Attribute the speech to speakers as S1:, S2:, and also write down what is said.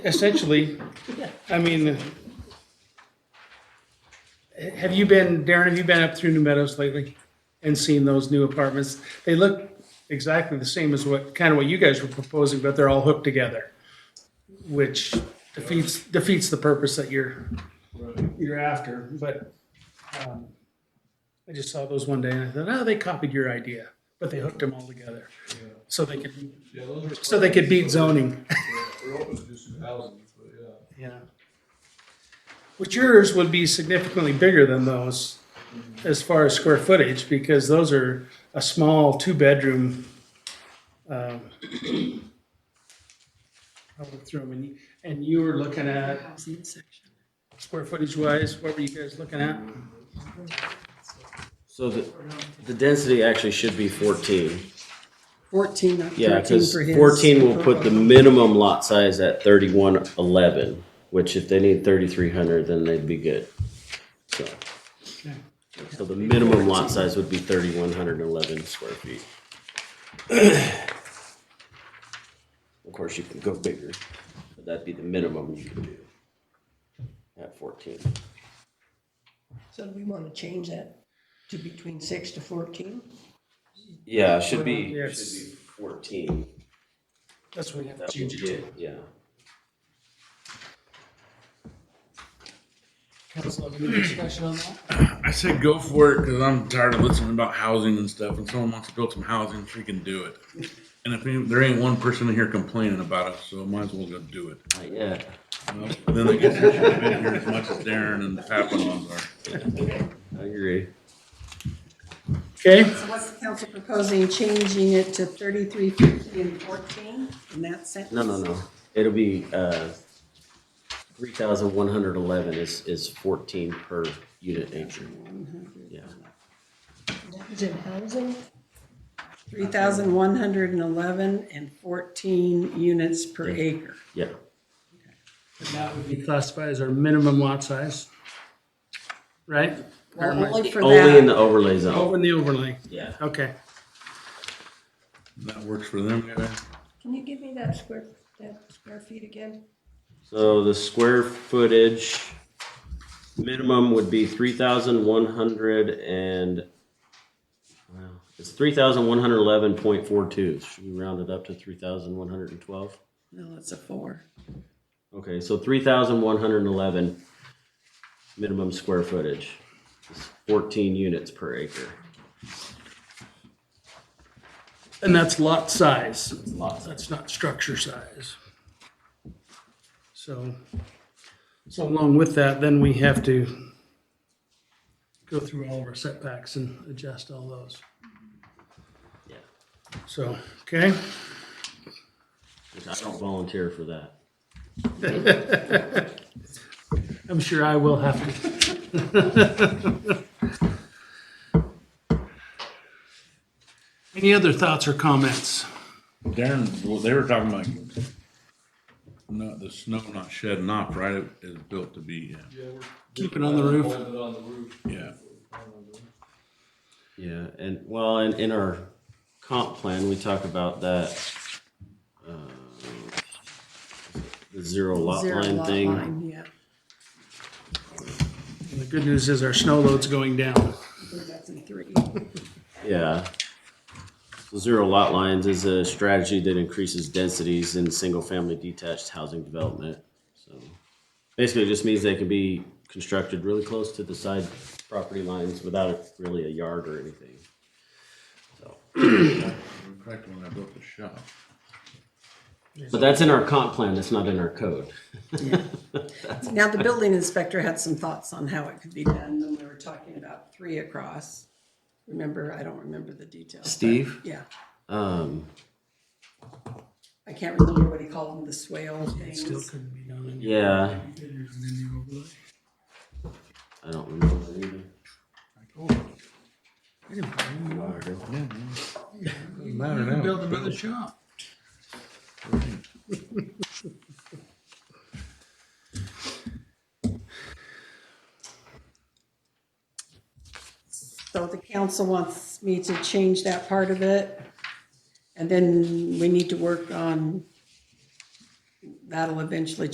S1: Essentially, I mean, have you been, Darren, have you been up through New Meadows lately and seen those new apartments? They look exactly the same as what, kind of what you guys were proposing, but they're all hooked together, which defeats, defeats the purpose that you're, you're after, but um, I just saw those one day and I thought, oh, they copied your idea, but they hooked them all together. So they could,
S2: Yeah, those are.
S1: so they could beat zoning.
S2: We're open to do some housing, but yeah.
S1: Yeah. Which yours would be significantly bigger than those as far as square footage, because those are a small two-bedroom. um, I looked through them, and, you- and you were looking at,
S3: Housing section.
S1: square footage wise, what were you guys looking at?
S4: So the, the density actually should be fourteen.
S3: Fourteen, not
S4: Yeah,
S3: thirteen
S4: because
S3: for his.
S4: fourteen will put the minimum lot size at thirty-one eleven, which if they need thirty-three hundred, then they'd be good. So, so the minimum lot size would be thirty-one hundred and eleven square feet. Of course, you can go bigger, but that'd be the minimum you can do at fourteen.
S3: So do we want to change that to between six to fourteen?
S4: Yeah, it should be, should
S1: Yes.
S4: be fourteen.
S1: That's what we have to
S4: That
S1: change
S4: would
S1: it to.
S4: be Yeah.
S1: Council, any discussion on that?
S5: I said go for it because I'm tired of listening about housing and stuff. And someone wants to build some housing, freaking do it. And if any- there ain't one person in here complaining about it, so might as well go do it.
S4: Yeah.
S5: you know? Then I guess I should have been here as much as Darren and the Papelons are.
S4: I agree.
S1: Okay,
S3: So what's the council proposing, changing it to thirty-three fifty and fourteen in that sentence?
S4: No, no, no. It'll be, uh, three thousand one hundred eleven is, is fourteen per unit acre.
S3: Mm-hmm.
S4: Yeah,
S6: Jim Housing,
S3: Three thousand one hundred and eleven and fourteen units per acre.
S4: yeah.
S1: and that would be classified as our minimum lot size, right? Or am I-
S3: Well, only for
S4: Only in
S3: that,
S4: the overlay
S1: Over
S4: zone.
S1: in the overlay,
S4: Yeah.
S1: okay.
S5: That works for them, guys.
S6: can you give me that square, that square feet again?
S4: So the square footage minimum would be three thousand one hundred and, wow, it's three thousand one hundred eleven point four two. Should we round it up to three thousand one hundred and twelve?
S3: no, it's a four.
S4: Okay, so three thousand one hundred and eleven minimum square footage, It's fourteen units per acre.
S1: And that's lot size.
S4: Lots.
S1: That's not structure size. So, so along with that, then we have to go through all of our setbacks and adjust all those.
S4: Yeah.
S1: So, okay,
S4: Which I don't volunteer for that.
S1: I'm sure I will have to. Any other thoughts or comments?
S5: Darren, well, they were talking about no, the snow not shedding off, right? It is built to be, yeah.
S2: Yeah, we're-
S1: Keep it on the roof.
S2: Hold it on the roof.
S5: Yeah.
S4: Yeah, and well, in, in our comp plan, we talk about that. uh, The zero lot
S3: Zero
S4: line
S3: lot
S4: thing.
S3: line, Yeah.
S1: The good news is our snow load's going down.
S3: I think That's a three.
S4: Yeah. So Zero lot lines is a strategy that increases densities in single-family detached housing development. So basically, it just means they can be constructed really close to the side property lines without a- really a yard or anything. So,
S5: In fact, when I built the shop,
S4: But that's in our comp plan, that's not in our code.
S3: Now, the building inspector had some thoughts on how it could be done when we were talking about three across. Remember, I don't remember the details. but-
S4: Steve?
S3: Yeah,
S4: Um,
S3: I can't remember what he called them, the swale
S1: Still
S3: things.
S1: couldn't be done in
S4: yeah,
S1: the overlay.
S4: I don't remember either.
S1: Build another shop.
S3: So the council wants me to change that part of it. And then we need to work on, that'll eventually